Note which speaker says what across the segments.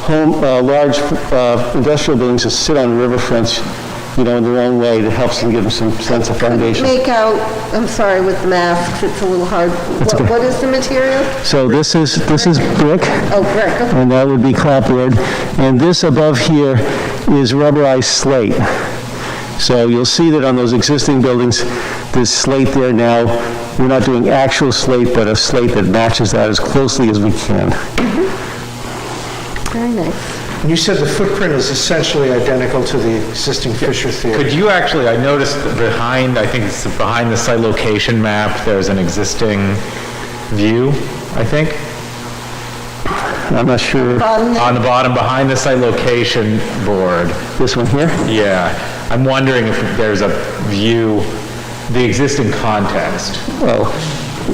Speaker 1: home, uh, large uh, industrial buildings that sit on riverfronts, you know, in their own way, that helps them give them some sense of foundation.
Speaker 2: Make out, I'm sorry, with masks, it's a little hard. What- What is the material?
Speaker 1: So this is, this is brick,
Speaker 2: Oh, brick, okay.
Speaker 1: and that would be clapboard, and this above here is rubberized slate. So you'll see that on those existing buildings, there's slate there now. We're not doing actual slate, but a slate that matches that as closely as we can.
Speaker 2: very nice.
Speaker 3: You said the footprint is essentially identical to the existing Fisher Theater.
Speaker 4: Could you actually, I noticed that behind, I think it's behind the site location map, there's an existing view, I think,
Speaker 1: I'm not sure,
Speaker 2: Bottom there,
Speaker 4: on the bottom, behind the site location board.
Speaker 1: this one here?
Speaker 4: Yeah, I'm wondering if there's a view, the existing context.
Speaker 1: Oh.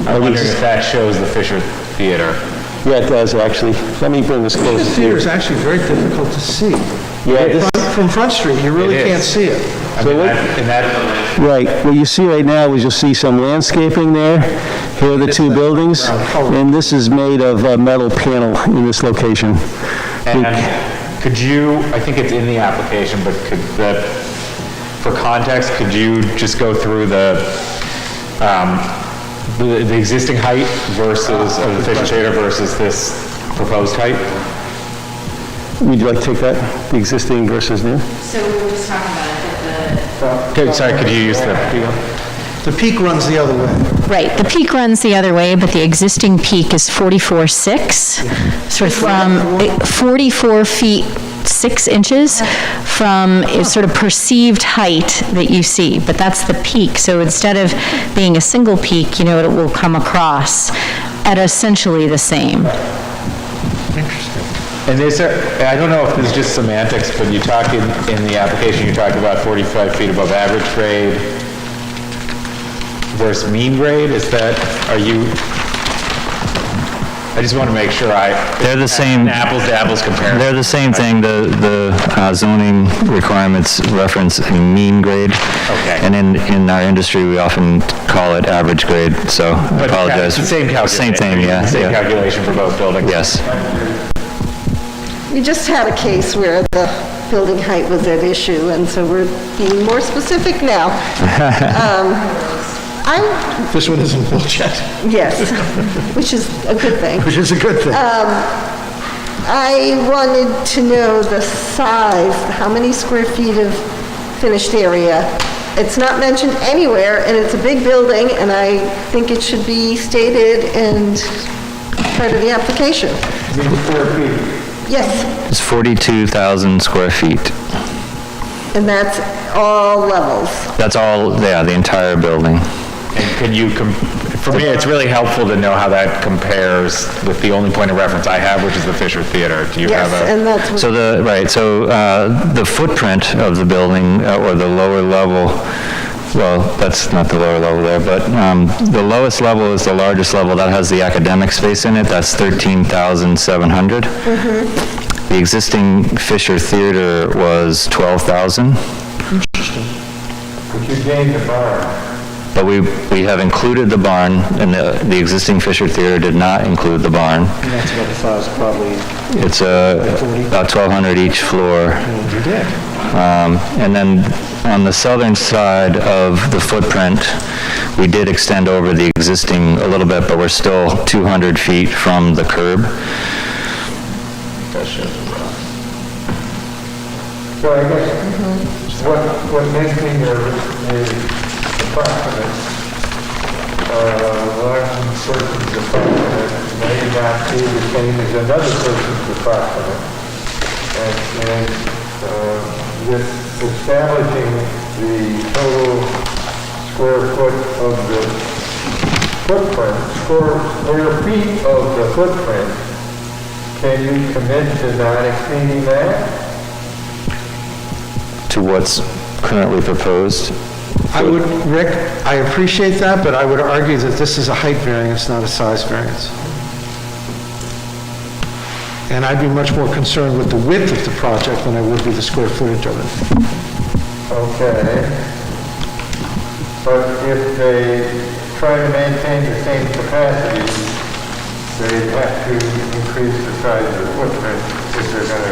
Speaker 4: I'm wondering if that shows the Fisher Theater.
Speaker 1: Yeah, it does, actually. Let me bring this
Speaker 3: The
Speaker 1: closer to
Speaker 3: theater
Speaker 1: you.
Speaker 3: is actually very difficult to see.
Speaker 1: Yeah, this,
Speaker 3: From- From Front Street, you really
Speaker 4: It is.
Speaker 3: can't see it.
Speaker 4: I mean, that- in that,
Speaker 1: right, what you see right now is you'll see some landscaping there. Here are the two buildings, and this is made of uh, metal panel in this location.
Speaker 4: and could you, I think it's in the application, but could the, for context, could you just go through the, um, the the existing height versus, of the Fisher Theater versus this proposed height?
Speaker 1: Would you like to take that, the existing versus new?
Speaker 5: So we were just talking about it, that the
Speaker 4: Could- Sorry, could you use the,
Speaker 3: The peak runs the other way.
Speaker 6: Right, the peak runs the other way, but the existing peak is 44.6, sort of from, it- 44 feet 6 inches from its sort of perceived height that you see, but that's the peak. So instead of being a single peak, you know, it will come across at essentially the same.
Speaker 4: And is there, I don't know if this is just semantics, but you talk in, in the application, you talk about 45 feet above average grade versus mean grade, is that, are you, I just want to make sure I,
Speaker 7: They're the same,
Speaker 4: an apples to apples
Speaker 7: they're
Speaker 4: comparison.
Speaker 7: the same thing, the, the uh, zoning requirements reference a mean grade.
Speaker 4: Okay.
Speaker 7: And in, in our industry, we often call it average grade, so I
Speaker 4: But yeah,
Speaker 7: apologize.
Speaker 4: it's the same
Speaker 7: Same
Speaker 4: calculation.
Speaker 7: thing, yeah,
Speaker 4: Same
Speaker 7: yeah,
Speaker 4: calculation for both buildings.
Speaker 7: yes.
Speaker 2: we just had a case where the building height was at issue, and so we're being more specific now. Um, I'm,
Speaker 3: This one isn't built yet,
Speaker 2: yes, which is a good thing.
Speaker 3: which is a good thing.
Speaker 2: I wanted to know the size, how many square feet of finished area. It's not mentioned anywhere, and it's a big building, and I think it should be stated and part of the application. Yes,
Speaker 7: It's 42,000 square feet.
Speaker 2: and that's all levels.
Speaker 7: That's all, yeah, the entire building.
Speaker 4: And could you, com- for me, it's really helpful to know how that compares with the only point of reference I have, which is the Fisher Theater. Do you have
Speaker 2: Yes,
Speaker 4: a?
Speaker 2: and that's what
Speaker 7: So the, right, so uh, the footprint of the building, uh, or the lower level, well, that's not the lower level there, but um, the lowest level is the largest level, that has the academic space in it, that's 13,700.
Speaker 2: Mm-hmm.
Speaker 7: The existing Fisher Theater was 12,000. But we, we have included the barn, and the, the existing Fisher Theater did not include the barn.
Speaker 3: That's about the size, probably.
Speaker 7: It's uh, about 1,200 each floor.
Speaker 3: Oh, You did.
Speaker 7: Um, And then on the southern side of the footprint, we did extend over the existing a little bit, but we're still 200 feet from the curb.
Speaker 8: So I guess what, what makes me nervous is the proximate, uh, one person's approximate may not be the same as another person's approximate. And, and, uh, this establishing the total square foot of the footprint, square, square feet of the footprint, can you commit to not exceeding that?
Speaker 7: To what's currently proposed?
Speaker 3: I would, Rick, I appreciate that, but I would argue that this is a height variance, not a size variance. And I'd be much more concerned with the width of the project than I would be the square footage of it.
Speaker 8: Okay. But if they try to maintain the same capacity, they have to increase the size of the footprint. because they're gonna